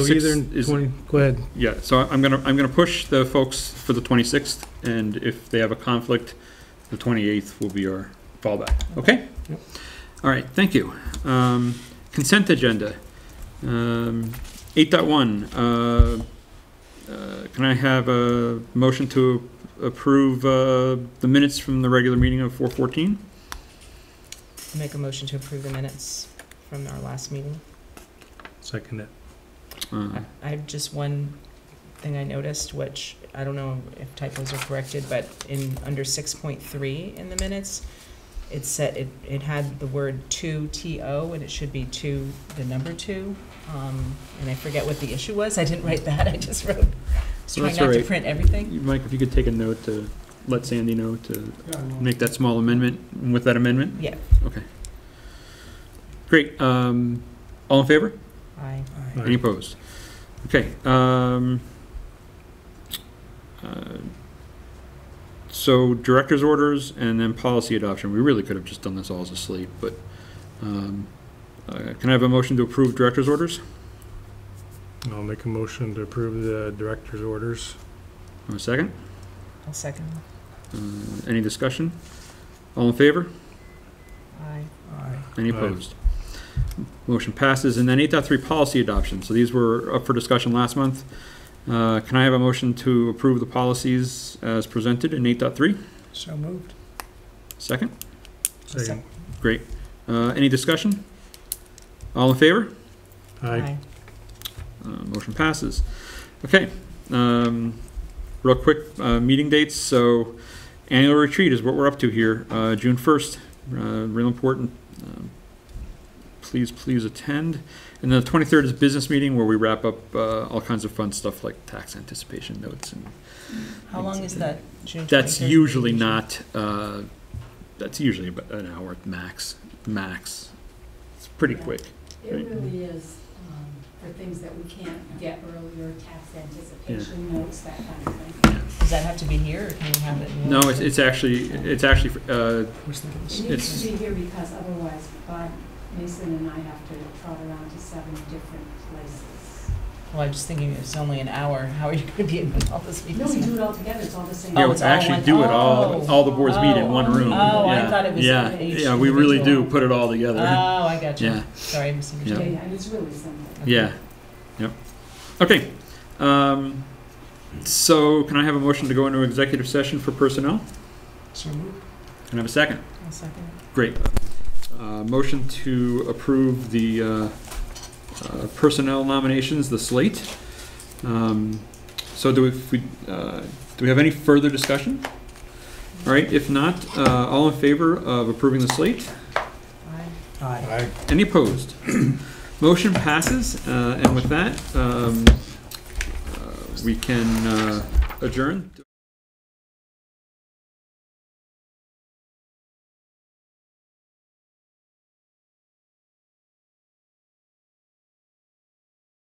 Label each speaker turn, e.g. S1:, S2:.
S1: Six
S2: Either in
S1: is-
S2: 20, go ahead.
S1: Yeah, so I- I'm gonna, I'm gonna push the folks for the 26th, and if they have a conflict, the 28th will be our fallback, okay?
S2: Yep.
S1: All right, thank you. Um, Consent agenda. Um, 8.1, uh, uh, can I have a motion to approve uh, the minutes from the regular meeting of 4:14?
S3: Make a motion to approve the minutes from our last meeting.
S2: Second it.
S1: Uh,
S3: I- I have just one thing I noticed, which I don't know if typos are corrected, but in, under six point three in the minutes, it said, it, it had the word two, T-O, and it should be two, the number two. Um, and I forget what the issue was, I didn't write that, I just wrote, just trying
S1: That's all
S3: not to
S1: right.
S3: print everything.
S1: Mike, if you could take a note to let Sandy know to make that small amendment, with that amendment?
S3: Yeah,
S1: Great, um, all in favor?
S3: I,
S1: Any opposed? Okay, um, uh, so director's orders and then policy adoption. We really could have just done this all as a slate, but, um, uh, can I have a motion to approve director's orders?
S2: I'll make a motion to approve the director's orders.
S1: Uh, second,
S3: I'll second,
S1: uh, any discussion? All in favor?
S3: I.
S1: Any
S2: Aye.
S1: opposed? Motion passes. And then 8.3, policy adoption. So these were up for discussion last month. Uh, Can I have a motion to approve the policies as presented in 8.3?
S3: So moved.
S1: Second?
S2: Second.
S1: Great. Uh, Any discussion? All in favor?
S2: Aye.
S1: Uh, Motion passes. Okay. um, Real quick, uh, meeting dates. So annual retreat is what we're up to here, uh, June 1st. uh, Real important. Um, Please, please attend. And then the 23rd is business meeting where we wrap up uh, all kinds of fun stuff like tax anticipation notes. and
S3: How long is that, June
S1: That's
S3: 23rd?
S1: usually not, uh, that's usually about an hour max, max. It's pretty
S4: Yeah.
S1: quick.
S4: It really is, um, for things that we can't get earlier, tax anticipation notes, that kind of thing.
S3: Does that have to be here, or can we have it? in
S1: No, it's
S3: Wellington?
S1: it's actually, it's actually uh,
S4: It
S1: It's-
S4: needs to be here because otherwise, Bob, Mason and I have to trot around to seven different places.
S3: Well, I'm just thinking, it's only an hour, how are you gonna be in all this
S4: No, we
S3: meetings?
S4: do it all together, it's all the same.
S1: Yeah,
S3: Oh,
S1: we
S3: it's all
S1: actually
S3: one-
S1: do it all,
S3: oh,
S1: all the boards meet in one
S4: oh,
S1: room.
S4: oh, I
S1: Yeah,
S3: thought it was
S1: Yeah,
S3: each
S1: yeah, we really do
S3: individual.
S1: put it all
S3: Oh,
S1: together.
S3: I got you,
S1: Yeah,
S3: sorry, I
S4: Yeah,
S3: misunderstood.
S4: yeah, it's really simple.
S1: yeah, yep. Okay, um, so can I have a motion to go into executive session for personnel? Can I have a second?
S3: One second.
S1: Great. Uh, motion to approve the, uh, uh, personnel nominations, the slate. Um, so do we- if we, uh, do we have any further discussion? All right, if not, uh, all in favor of approving the slate?
S3: Aye.
S2: Aye.
S1: Any opposed? Motion passes, uh, and with that, um, uh, we can uh, adjourn.